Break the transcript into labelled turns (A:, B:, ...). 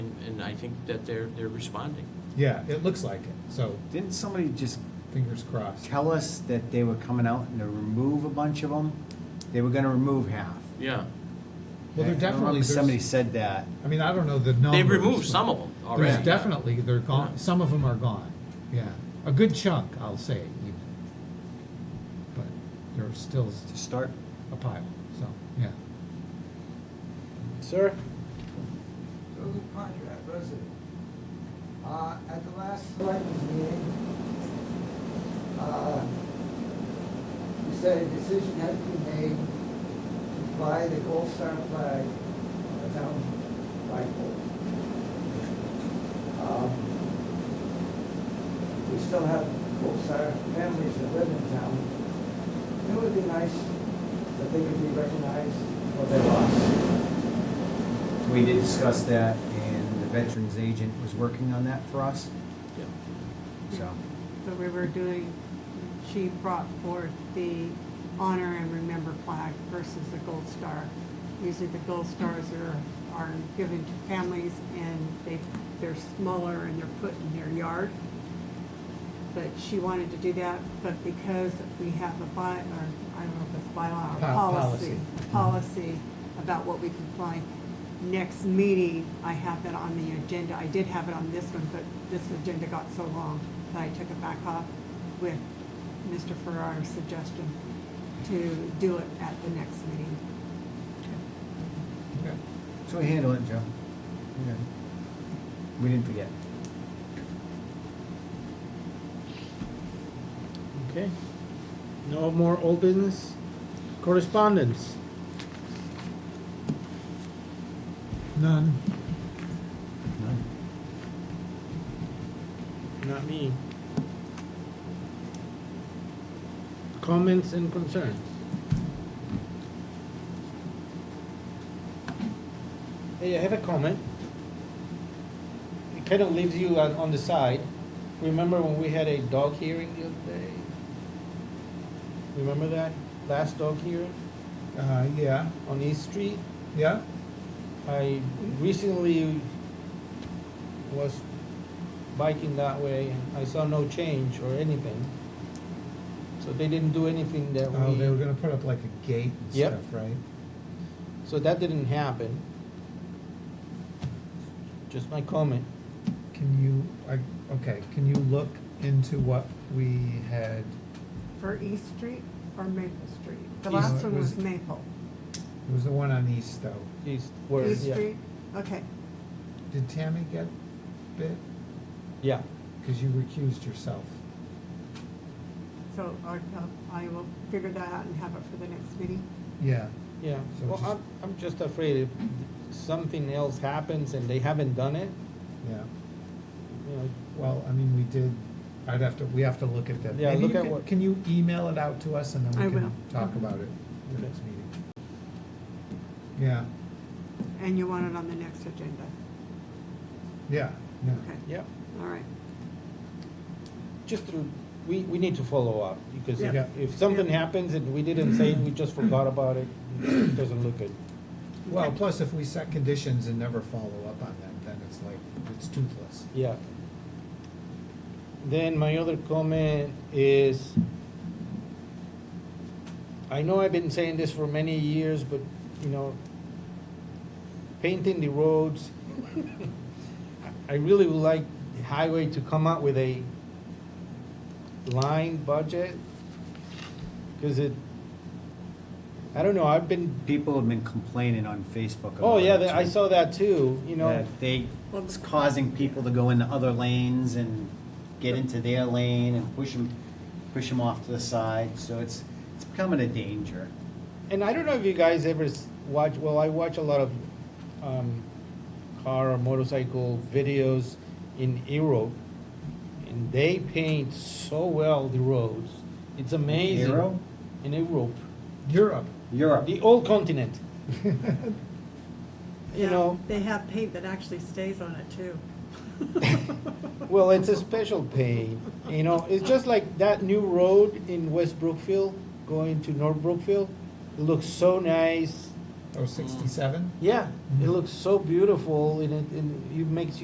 A: and I think that they're, they're responding.
B: Yeah, it looks like it, so
C: Didn't somebody just
B: fingers crossed.
C: tell us that they were coming out and to remove a bunch of them? They were gonna remove half.
A: Yeah.
B: Well,
C: I
B: they're
C: remember
B: definitely,
C: Somebody
B: there's,
C: said that.
B: I mean, I don't know the numbers.
A: They've removed
B: but
A: some of them already.
B: There's definitely, they're gone, some of them are gone, yeah. A good chunk, I'll say even. But there's still
C: To start,
B: a pile, so, yeah.
D: Sir?
E: to the contract resident. Uh, at the last selectmen's meeting, uh, we said a decision had to be made to fly the gold star flag on the town flag pole. Um, We still have gold star families that live in town. It would be nice that they could be recognized for their loss.
C: we did discuss that and the veterans agent was working on that for us,
A: Yeah.
C: so.
F: So we were doing, she brought forth the honor and remember flag versus the gold star. Usually the gold stars are, are given to families and they, they're smaller and they're put in their yard. But she wanted to do that, but because we have a by, or I don't know if it's bylaw or
B: Po-
F: policy,
B: policy.
F: policy about what we can find. Next meeting, I have that on the agenda. I did have it on this one, but this agenda got so long that I took it back off with Mr. Farrar's suggestion to do it at the next meeting.
B: Okay.
C: So we handle it, Joe. Okay. We didn't forget.
D: Okay. No more old business? Correspondence?
B: None.
D: Not me. Comments and concerns? Hey, I have a comment. It kind of leaves you on, on the side. Remember when we had a dog hearing the other day? Remember that? Last dog hearing
B: Uh, yeah,
D: on East Street?
B: yeah,
D: I recently was biking that way and I saw no change or anything. So they didn't do anything that
B: oh, they were
D: we,
B: gonna put up like a gate and
D: Yep.
B: stuff, right?
D: so that didn't happen. Just my comment.
B: Can you, I, okay, can you look into what we had,
F: For East Street or Maple Street? The
D: East-
F: last one was
B: was-
F: Maple.
B: it was the one on East though.
D: East, where,
F: East
D: yeah,
F: Street, okay.
B: Did Tammy get bit?
D: yeah.
B: Because you recused yourself.
F: So I, uh, I will figure that out and have it for the next meeting.
B: Yeah.
D: Yeah,
B: So
D: well,
B: just-
F: um,
D: I'm, I'm just afraid if something else happens and they haven't done it,
B: Yeah.
D: you know,
B: Well, I mean, we did, I'd have to, we have to look at that.
D: Yeah,
B: Maybe
D: look
B: you
D: at
B: can-
D: what-
B: Can you email it out to us and
F: I
B: then we
F: will.
B: can talk about it at the
D: Okay.
B: next meeting? Yeah,
F: And you want it on the next agenda?
B: yeah, yeah.
F: Okay,
D: yeah.
F: all right.
D: just to, we, we need to follow up, because
B: Yeah.
D: if, if something
F: Yeah.
D: happens and we didn't say, it, we just forgot about it, it doesn't look good.
B: Well, plus if we set conditions and never follow up on them, then it's like, it's toothless.
D: Yeah. Then my other comment is, I know I've been saying this for many years, but, you know, painting the roads, I really would like the highway to come out with a line budget, because it, I don't know, I've been,
C: People have been complaining on Facebook.
D: oh,
C: about
D: yeah,
C: it,
D: that- I
C: too.
D: saw that too, you know,
C: that They, it's causing people to go into other lanes and get into their lane and push them, off to the side, so it's, it's becoming a danger.
D: And I don't know if you guys ever s- watch, well, I watch a lot of um, car or motorcycle videos in Europe, and they paint so well the roads. It's amazing.
C: Europe?
D: In Europe,
B: Europe,
C: Europe,
D: the old continent. you
F: Yeah,
D: know,
F: They have paint that actually stays on it too.
D: well, it's a special paint. You know, it's just like that new road in West Brookfield going to North Brookfield. It looks so nice. Mm-hmm.
B: oh, sixty-seven?
D: Yeah, it looks so beautiful, and it, and it makes you.